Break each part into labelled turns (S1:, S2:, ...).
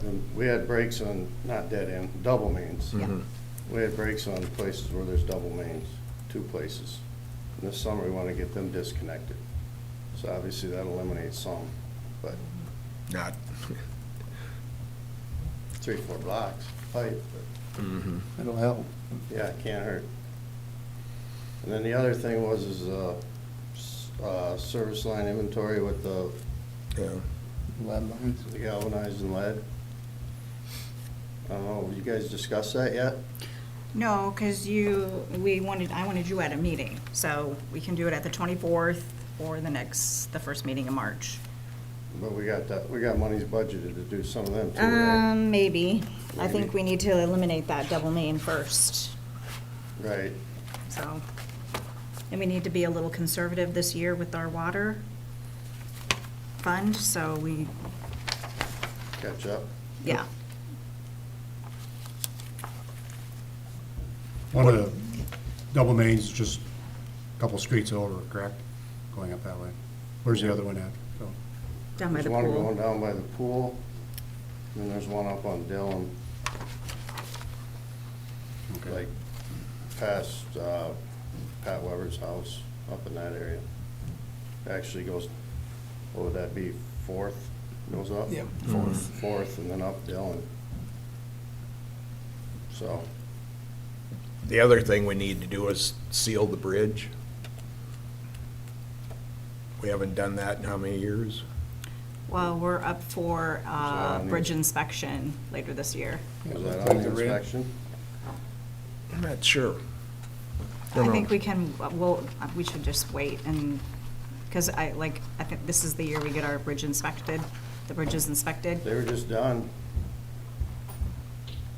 S1: And we had breaks on, not dead end, double mains.
S2: Yeah.
S1: We had breaks on places where there's double mains, two places. And this summer, we want to get them disconnected. So obviously, that eliminates some, but
S2: Not,
S1: three, four blocks, pipe,
S2: Mm-hmm.
S3: It'll help.
S1: but yeah, it can't hurt. And then the other thing was is, uh, s- uh, service line inventory with the
S2: yeah,
S3: Lead lines.
S1: the galvanized and lead. I don't know, you guys discussed that yet?
S4: No, because you, we wanted, I wanted you at a meeting, so we can do it at the 24th or the next, the first meeting in March.
S1: But we got that, we got monies budgeted to do some of them too, right?
S4: Um, maybe. I think
S1: Maybe.
S4: we need to eliminate that double name first,
S1: Right,
S4: so. And we need to be a little conservative this year with our water fund, so we,
S1: catch up.
S4: yeah.
S5: One of the double mains, is just a couple streets over, correct? Going up that way. Where's the other one at? So,
S4: Down by
S1: There's
S4: the
S1: one going
S4: pool.
S1: down by the pool, and then there's one up on Dillon,
S5: okay.
S1: like past, uh, Pat Weber's house, up in that area. Actually goes, what would that be, Fourth, goes up?
S3: Yep.
S1: Fourth. Fourth, and then up Dillon. So,
S2: the other thing we need to do is seal the bridge. We haven't done that in how many years?
S4: Well, we're up for,
S1: So I
S4: uh,
S1: need-
S4: bridge inspection later this year.
S1: was that on the inspection?
S2: I'm not sure.
S4: I think we can, well, we should just wait and, because I, like, I think this is the year we get our bridge inspected, the bridges inspected.
S1: They were just done.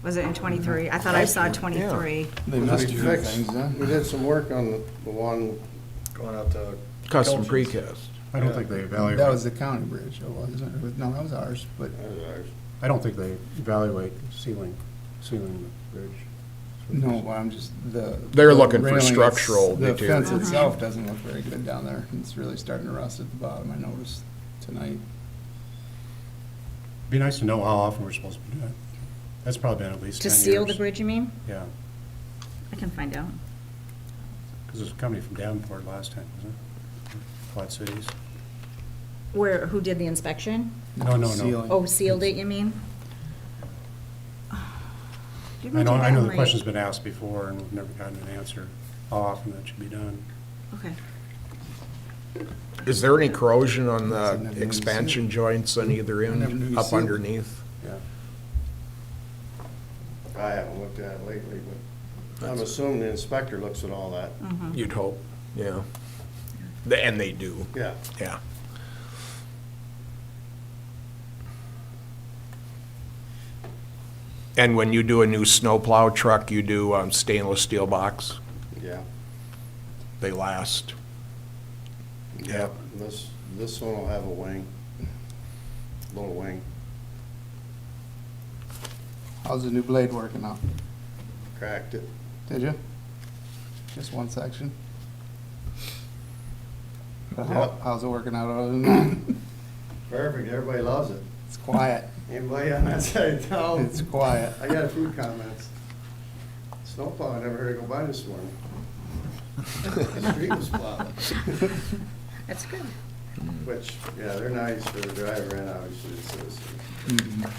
S4: Was
S1: Mm-hmm.
S4: it in twenty-three? I thought I saw twenty-three.
S3: They
S1: We
S3: must do
S1: fixed-
S3: things, huh?
S1: We did some work on the the one,
S6: going out to.
S1: uh,
S2: Custom
S6: Kelch's.
S2: precast.
S5: I don't think they evaluate,
S3: That was the county bridge, it wasn't, it? no, that was ours, but
S1: that was ours.
S5: I don't think they evaluate sealing, sealing the bridge.
S3: no, well, I'm just, the.
S2: They're looking for
S3: the railing, it's-
S2: structural
S3: The fence
S2: deterioration.
S3: itself doesn't look very good down there. It's really starting to rust at the bottom, I noticed tonight.
S5: Be nice to know how often we're supposed to do that. That's probably been at least
S4: To
S5: 10 years.
S4: seal the bridge, you mean?
S5: Yeah,
S4: I can find out.
S5: because there's a company from Davenport last time, wasn't it? Flat Cities.
S4: Where, who did the inspection?
S5: No, no, no.
S3: Sealing.
S4: Oh, sealed it, you mean? Didn't we do
S5: I know, I
S4: that
S5: know
S4: in,
S5: the
S4: like-
S5: question's been asked before and we've never gotten an answer, how often that should be done.
S4: Okay.
S2: Is there any corrosion on
S3: Doesn't have
S2: the
S3: any
S2: expansion
S3: seal.
S2: joints on either
S3: Never knew
S2: end,
S3: you
S2: up
S3: sealed.
S2: underneath?
S5: Yeah.
S1: I haven't looked at it lately, but I'm assuming the inspector looks at all that.
S4: Mhm.
S2: You'd hope, yeah. The- And they do,
S1: Yeah,
S2: yeah. And when you do a new snowplow truck, you do um, stainless steel box.
S1: yeah.
S2: They last. Yep.
S1: This, this one will have a wing, little wing.
S3: How's the new blade working out?
S1: Cracked it.
S3: Did you? Just one section? But
S1: Yeah.
S3: how, how's it working out other than that?
S1: Perfect, everybody loves it.
S3: It's quiet,
S1: Anybody on that side of town?
S3: it's quiet.
S1: I got a few comments. Snowplow, I never heard it go by this morning. The street was plowed.
S4: That's good.
S1: Which, yeah, they're nice for the driver and obviously the citizen.
S2: Mm-hmm.
S1: Um,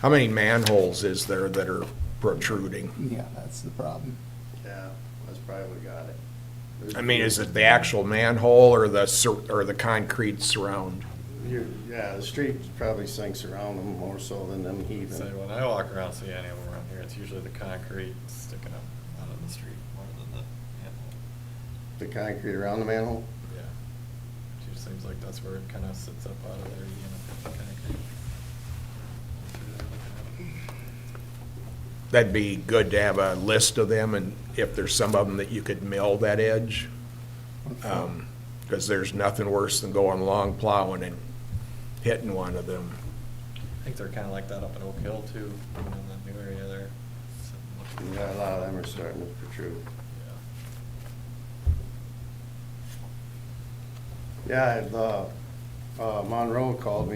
S2: How many manholes is there that are protruding?
S3: Yeah, that's the problem.
S1: Yeah, that's probably what got it.
S2: I mean, is it the actual manhole or the, sur- or the concrete surround?
S1: You- Yeah, the street probably sinks around them more so than them
S6: So
S1: heaving.
S6: when I walk around, see any of them around here, it's usually the concrete sticking up out of the street more than the manhole.
S1: The concrete around the manhole?
S6: Yeah. It just seems like that's where it kind of sits up out of there, you know, the concrete.
S2: That'd be good to have a list of them, and if there's some of them that you could mill that edge. Um, Because there's nothing worse than going long plowing and hitting one of them.
S6: I think they're kind of like that up in Oak Hill too, you know, in that new area there. Something like-
S1: Yeah, a lot of them are starting to protrude.
S6: Yeah.
S1: Yeah, the, uh, Monroe called me